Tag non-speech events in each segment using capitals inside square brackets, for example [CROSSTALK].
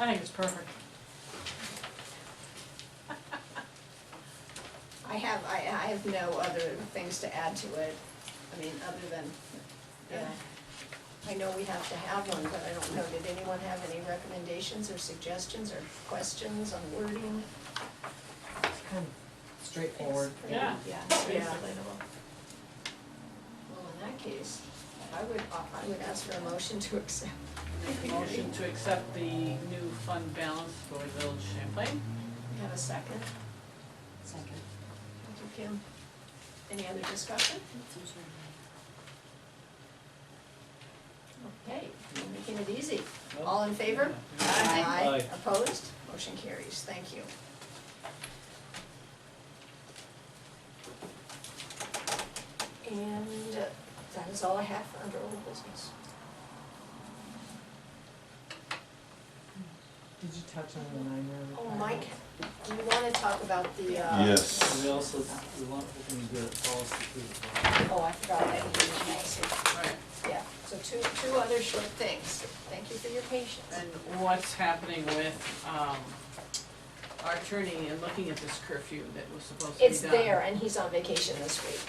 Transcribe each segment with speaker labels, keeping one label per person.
Speaker 1: I think it's perfect.
Speaker 2: I have, I, I have no other things to add to it, I mean, other than, you know, I know we have to have one, but I don't know, did anyone have any recommendations or suggestions or questions on wording?
Speaker 3: It's kind of straightforward.
Speaker 1: Yeah.
Speaker 2: Yeah,
Speaker 1: It's
Speaker 2: yeah,
Speaker 1: relatable.
Speaker 2: well, in that case, I would, I would ask for a motion to accept.
Speaker 1: Make a motion to accept the new fund balance for Village Champlain.
Speaker 2: Have a second?
Speaker 4: Second.
Speaker 2: Thank you, Kim. Any other discussion? Okay, we're making it easy. All in favor?
Speaker 5: Aye.
Speaker 2: Opposed? Motion carries, thank you. And uh, that is all I have for under old business.
Speaker 3: Did you touch on the nine yard?
Speaker 2: Oh, Mike, do you wanna talk about the, uh?
Speaker 6: Yes.
Speaker 5: We also, we want, we can get a policy through.
Speaker 2: Oh, I forgot that you didn't ask.
Speaker 1: Right,
Speaker 2: Yeah, so two, two other short things. Thank you for your patience.
Speaker 1: and what's happening with, um, our attorney and looking at this curfew that was supposed to be done?
Speaker 2: It's there and he's on vacation this week.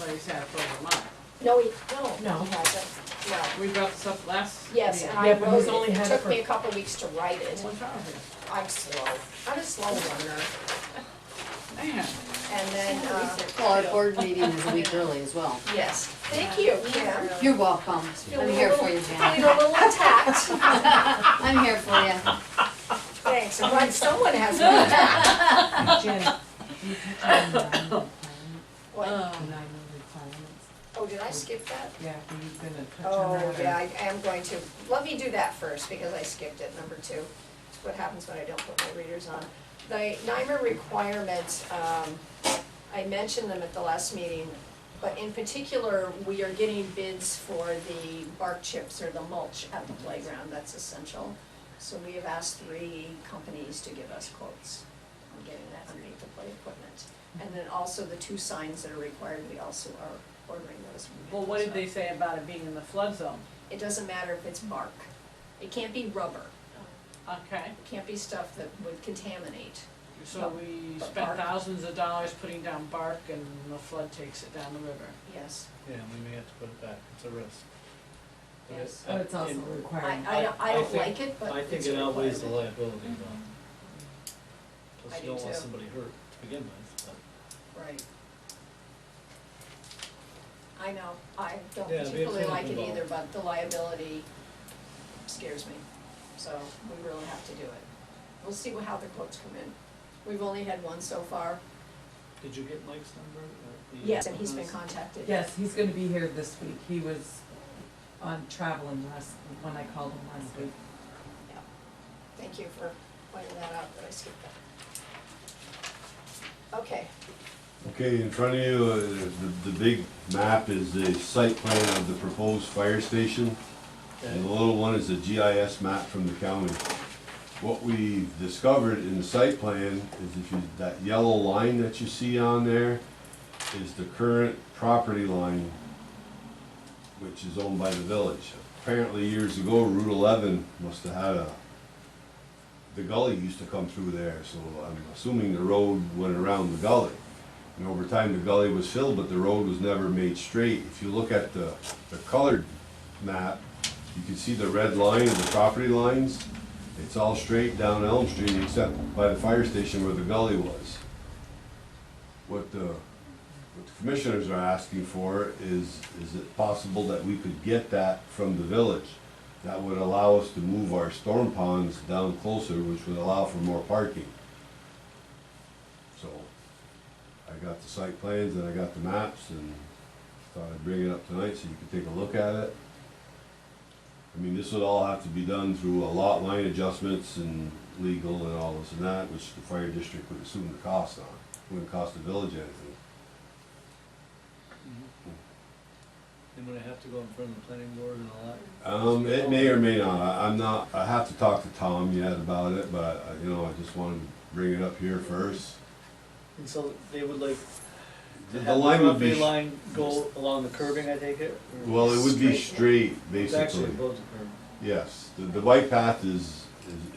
Speaker 1: But he's had it for over a month.
Speaker 2: No, he, no,
Speaker 3: No.
Speaker 2: he hasn't, no.
Speaker 1: We brought this up last meeting.
Speaker 2: Yes, and I
Speaker 3: Yeah, but
Speaker 2: wrote
Speaker 3: he's
Speaker 2: it,
Speaker 3: only
Speaker 2: it
Speaker 3: had it
Speaker 2: took
Speaker 3: for-
Speaker 2: me a couple weeks to write it.
Speaker 1: One thousand.
Speaker 2: I'm slow, I'm a slow learner.
Speaker 1: Man,
Speaker 2: And then, uh,
Speaker 4: Well, our board meeting is a week early as well.
Speaker 2: yes, thank you, Kim.
Speaker 4: You're welcome. I'm here for you,
Speaker 2: Feeling
Speaker 4: Jan. [LAUGHS]
Speaker 2: a [LAUGHS] little attacked.
Speaker 4: I'm here for you.
Speaker 2: Thanks, I'm glad someone [LAUGHS] has been attacked.
Speaker 3: Janet, did you touch on the nine [LAUGHS] yard requirement?
Speaker 2: What?
Speaker 3: The Oh, nine
Speaker 1: um,
Speaker 3: yard requirements?
Speaker 2: Oh, did I skip that?
Speaker 3: Yeah, were you gonna touch on that?
Speaker 2: Oh,
Speaker 3: or-
Speaker 2: yeah, I I am going to. Let me do that first because I skipped it, number two. It's what happens when I don't put my readers on. The NYMER requirements, um, I mentioned them at the last meeting, but in particular, we are getting bids for the bark chips or the mulch at the playground, that's essential. So we have asked three companies to give us quotes on getting that underneath the play equipment. And then also the two signs that are required, we also are ordering those.
Speaker 1: Well, what did
Speaker 2: So-
Speaker 1: they say about it being in the flood zone?
Speaker 2: it doesn't matter if it's bark. It can't be rubber.
Speaker 1: Okay,
Speaker 2: It can't be stuff that would contaminate.
Speaker 1: so we
Speaker 2: But
Speaker 1: spent
Speaker 2: bark.
Speaker 1: thousands of dollars putting down bark and the flood takes it down the river.
Speaker 2: Yes.
Speaker 5: Yeah, and we may have to put it back, it's a risk. But it-
Speaker 2: Yes.
Speaker 3: Oh, it's also
Speaker 5: it-
Speaker 3: a
Speaker 2: I,
Speaker 3: requirement.
Speaker 2: I don't, I
Speaker 5: I
Speaker 2: don't
Speaker 5: think-
Speaker 2: like it, but
Speaker 5: I think
Speaker 2: it's
Speaker 5: it
Speaker 2: a
Speaker 5: outweighs the
Speaker 2: requirement.
Speaker 5: liability though.
Speaker 2: I
Speaker 5: Plus you
Speaker 2: do
Speaker 5: don't want
Speaker 2: too.
Speaker 5: somebody hurt to begin with, but.
Speaker 2: Right. I know, I don't
Speaker 5: Yeah, be
Speaker 2: particularly like it
Speaker 5: affordable.
Speaker 2: either, but the liability scares me. So we really have to do it. We'll see how the quotes come in. We've only had one so far.
Speaker 5: Did you get Mike's number? or the- uh,
Speaker 2: Yes, and he's
Speaker 5: Mm-hmm.
Speaker 2: been contacted.
Speaker 3: Yes, he's gonna be here this week. He was on traveling last, when I called him last week.
Speaker 2: Thank you for pointing that out, that I skipped that. Okay,
Speaker 6: Okay, in front of you, uh, the, the big map is the site plan of the proposed fire station. And the
Speaker 5: Okay.
Speaker 6: little one is a GIS map from the county. What we discovered in the site plan is if you, that yellow line that you see on there is the current property line, which is owned by the village. Apparently years ago, Route eleven must have had a, the gully used to come through there, so I'm assuming the road went around the gully. And over time, the gully was filled, but the road was never made straight. If you look at the, the colored map, you can see the red line and the property lines. It's all straight down Elm Street except by the fire station where the gully was. What the, what the commissioners are asking for is, is it possible that we could get that from the village? That would allow us to move our storm ponds down closer, which would allow for more parking. So, I got the site plans and I got the maps and thought I'd bring it up tonight so you could take a look at it. I mean, this would all have to be done through a lot line adjustments and legal and all this and that, which the fire district would assume the cost on. Wouldn't cost the village anything.
Speaker 5: Mhm. And would it have to go in front of the planning board and all that?
Speaker 6: Um, it may or may not, I- I'm not, I have to talk to Tom yet about it, but, uh, you know, I just wanted to bring it up here first.
Speaker 5: And so they would like
Speaker 6: The-
Speaker 5: have
Speaker 6: The
Speaker 5: the
Speaker 6: line would
Speaker 5: property
Speaker 6: be, sh-
Speaker 5: line go along the curbing, I take it? or-
Speaker 6: well, it would be
Speaker 2: Straight.
Speaker 6: straight,
Speaker 5: It's actually
Speaker 6: basically,
Speaker 5: above the curb.
Speaker 6: yes. The, the bike path is, is,